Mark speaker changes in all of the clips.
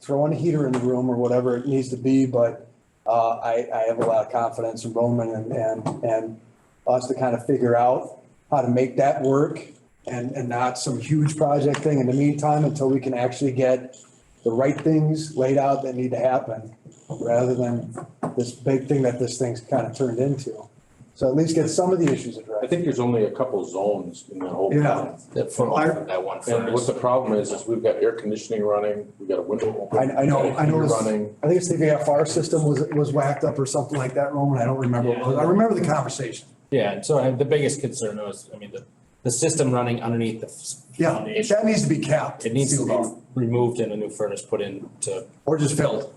Speaker 1: throwing a heater in the room or whatever it needs to be, but uh, I, I have a lot of confidence in Roman and, and, and us to kind of figure out how to make that work and, and not some huge project thing in the meantime until we can actually get the right things laid out that need to happen, rather than this big thing that this thing's kind of turned into. So at least get some of the issues
Speaker 2: I
Speaker 1: addressed.
Speaker 2: think there's only a couple zones in the whole
Speaker 1: Yeah.
Speaker 2: town.
Speaker 3: That front,
Speaker 1: I-
Speaker 3: that one
Speaker 2: And what
Speaker 3: furnace.
Speaker 2: the problem is, is we've got air conditioning running, we've got a window open.
Speaker 1: I- I know-
Speaker 2: we've got
Speaker 1: I
Speaker 2: a heater
Speaker 1: noticed-
Speaker 2: Running,
Speaker 1: I think it's the VFR system was, was whacked up or something like that, Roman, I don't remember. what it was. I remember the conversation.
Speaker 4: Yeah, and so I- the biggest concern was, I mean, the, the system running underneath the f-
Speaker 1: Yeah,
Speaker 4: foundation.
Speaker 1: that needs to be capped.
Speaker 4: It needs to
Speaker 1: sealed off,
Speaker 4: be removed and a new furnace put in to,
Speaker 1: Or just filled.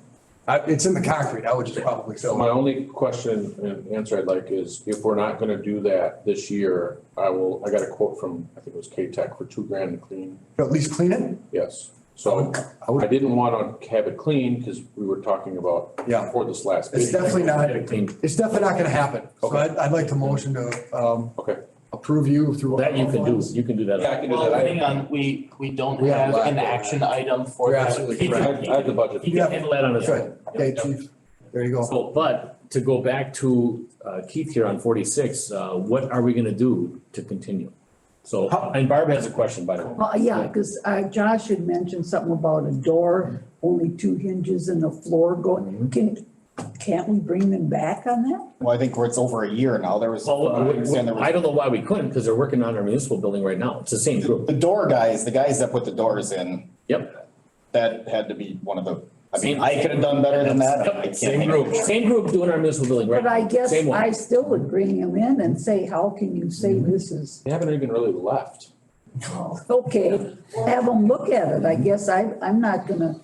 Speaker 1: I- It's in the concrete, I would just probably
Speaker 2: so
Speaker 1: fill
Speaker 2: my
Speaker 1: it.
Speaker 2: only question and answer I'd like is, if we're not gonna do that this year, I will, I got a quote from, I think it was K-Tech for two grand to clean,
Speaker 1: At least clean it?
Speaker 2: yes. So
Speaker 1: I would-
Speaker 2: I didn't wanna have it clean, cause we were talking about
Speaker 1: Yeah.
Speaker 2: for this last
Speaker 1: It's
Speaker 2: meeting.
Speaker 1: definitely not-
Speaker 2: Get it cleaned.
Speaker 1: It's definitely not gonna happen. So
Speaker 2: Okay.
Speaker 1: I'd, I'd like to motion to, um,
Speaker 2: Okay.
Speaker 1: approve you through.
Speaker 5: That you can do, you can do
Speaker 2: Yeah, I
Speaker 5: that.
Speaker 2: can do
Speaker 6: Well,
Speaker 2: that. I-
Speaker 6: hang on, we, we don't
Speaker 1: We have
Speaker 6: have an
Speaker 1: black.
Speaker 6: action item for
Speaker 1: You're
Speaker 6: that.
Speaker 1: absolutely
Speaker 6: He
Speaker 2: I
Speaker 6: can-
Speaker 2: have- I have the budget.
Speaker 5: He can handle that on his
Speaker 1: Good,
Speaker 5: own.
Speaker 1: okay, chief, there you go.
Speaker 5: So, but to go back to uh, Keith here on forty-six, uh, what are we gonna do to continue? So,
Speaker 1: How-
Speaker 5: and Barb has a question, by the way.
Speaker 7: Well, yeah, because Josh had mentioned something about a door, only two hinges and a floor
Speaker 5: Mm-hmm.
Speaker 7: going. Can, can't we bring them back on that?
Speaker 8: Well, I think it's over a year now. There was,
Speaker 5: Well,
Speaker 8: I understand there
Speaker 5: I
Speaker 8: was,
Speaker 5: don't know why we couldn't, because they're working on our municipal building right now. It's the same group.
Speaker 8: the door guys, the guys that put the doors in,
Speaker 5: Yep.
Speaker 8: that had to be one of the, I mean,
Speaker 5: Same-
Speaker 8: I could have done better than that. and I
Speaker 5: Yep,
Speaker 8: can't
Speaker 5: Same
Speaker 8: think
Speaker 5: group,
Speaker 8: of it.
Speaker 5: same group doing our municipal building right
Speaker 7: But I
Speaker 5: now.
Speaker 7: guess
Speaker 5: Same one. Mm-hmm.
Speaker 7: I still would bring them in and say, how can you say this is,
Speaker 2: They haven't even really left.
Speaker 7: okay, have them look at it. I guess I, I'm not gonna,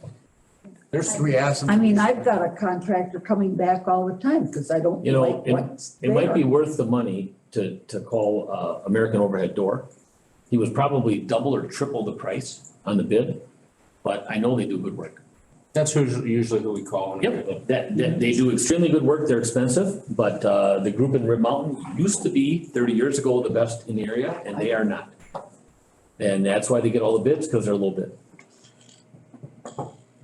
Speaker 1: There's three asses.
Speaker 7: I mean, I've got a contractor coming back all the time because I don't
Speaker 5: You know,
Speaker 7: like
Speaker 5: it-
Speaker 7: what's
Speaker 5: It might be
Speaker 7: there.
Speaker 5: worth the money to, to call, uh, American Overhead Door. He was probably double or triple the price on the bid, but I know they do good work.
Speaker 4: that's who's usually who we call. when we-
Speaker 5: Yep, that, that, they do extremely good work, they're expensive, but, uh, the group in Rib Mountain used to be thirty years ago the best in the area, and they are not. And that's why they get all the bids, because they're a little bit.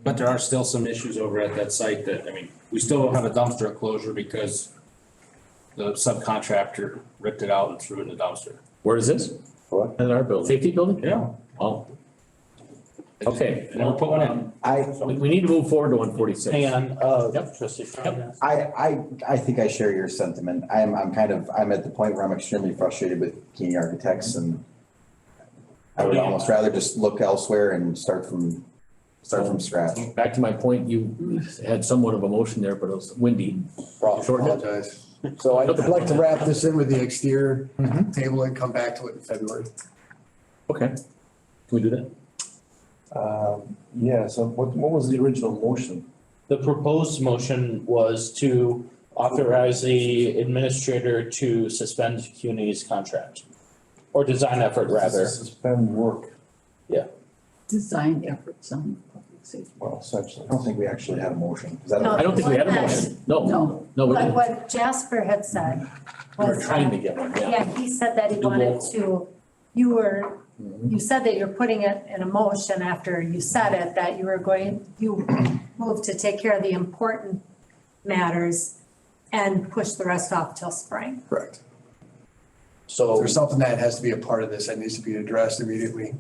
Speaker 4: But there are still some issues over at that site that, I mean, we still don't have a dumpster closure because the subcontractor ripped it out and threw it in the dumpster.
Speaker 5: Where is this?
Speaker 2: What?
Speaker 5: In our building. Safety building?
Speaker 4: Yeah.
Speaker 5: Oh. Okay,
Speaker 4: They never put one in.
Speaker 9: I,
Speaker 5: we, we need to move forward to one forty-six.
Speaker 6: Hang on, uh,
Speaker 5: Yep.
Speaker 6: trustee Crown.
Speaker 9: I, I, I think I share your sentiment. I'm, I'm kind of, I'm at the point where I'm extremely frustrated with Keeney Architects and I would almost rather just look elsewhere and start from, start from scratch.
Speaker 5: Back to my point, you had somewhat of a motion there, but it was windy. Shorten it.
Speaker 1: Apologize. So I'd like to wrap this in with the exterior table and come back to it in February.
Speaker 5: Okay. Can we do that?
Speaker 10: Um, Yeah, so what, what was the original motion?
Speaker 6: The proposed motion was to authorize the administrator to suspend CUNY's contract. Or design effort rather.
Speaker 10: Suspend work,
Speaker 7: Design efforts on public safety.
Speaker 10: well, essentially.
Speaker 9: I don't think we actually had a motion. 'cause I
Speaker 5: I
Speaker 9: don't-
Speaker 5: don't think we had a motion. No,
Speaker 7: No,
Speaker 5: no, we
Speaker 11: But
Speaker 5: didn't.
Speaker 11: what Jasper had said
Speaker 5: We were
Speaker 11: was,
Speaker 5: trying to
Speaker 11: uh,
Speaker 5: get one, yeah.
Speaker 11: yeah, he said that he
Speaker 5: Do
Speaker 11: wanted
Speaker 5: both.
Speaker 11: to, you were,
Speaker 5: Mhm.
Speaker 11: you said that you're putting it in a motion after you said it, that you were going, you moved to take care of the important matters and push the rest off till spring.
Speaker 1: Correct.
Speaker 6: So,
Speaker 1: There's something that has to be a part of this that needs to be addressed immediately.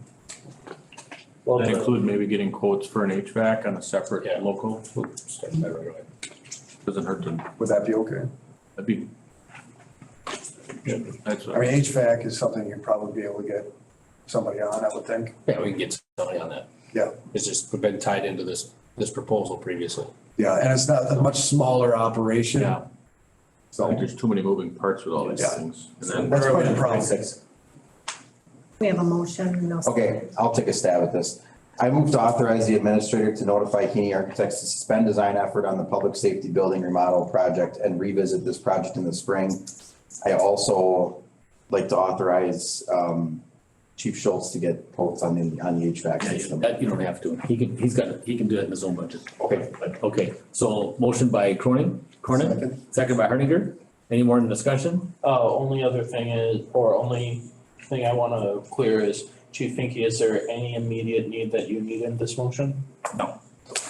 Speaker 6: well,
Speaker 3: That
Speaker 6: the-
Speaker 3: include maybe getting quotes for an HVAC on a separate local? Doesn't hurt to,
Speaker 1: Would that be okay?
Speaker 3: that'd be. That's
Speaker 1: I mean, HVAC is something you'd probably be able to get somebody on, I would think.
Speaker 4: Yeah, we can get somebody on that.
Speaker 1: Yeah.
Speaker 4: It's just been tied into this, this proposal previously.
Speaker 1: Yeah, and it's not a much smaller operation.
Speaker 4: Yeah.
Speaker 1: So
Speaker 3: There's too many moving parts with all these
Speaker 1: Yeah.
Speaker 3: things. And then
Speaker 1: that's quite a problem.
Speaker 11: We have a motion, no.
Speaker 9: Okay, I'll take a stab at this. I move to authorize the administrator to notify Keeney Architects to suspend design effort on the public safety building remodel project and revisit this project in the spring. I also like to authorize um, Chief Schultz to get quotes on the, on the HVAC
Speaker 5: Yeah, you-
Speaker 9: system.
Speaker 5: That you don't have to. He can, he's got, he can do that in his own budget.
Speaker 9: Okay.
Speaker 5: But, okay, so motion by Cronin, Cronin, second by Hardinger. Any more in discussion?
Speaker 6: Uh, only other thing is, or only thing I wanna clear is, Chief Finke, is there any immediate need that you need in this motion?
Speaker 3: No.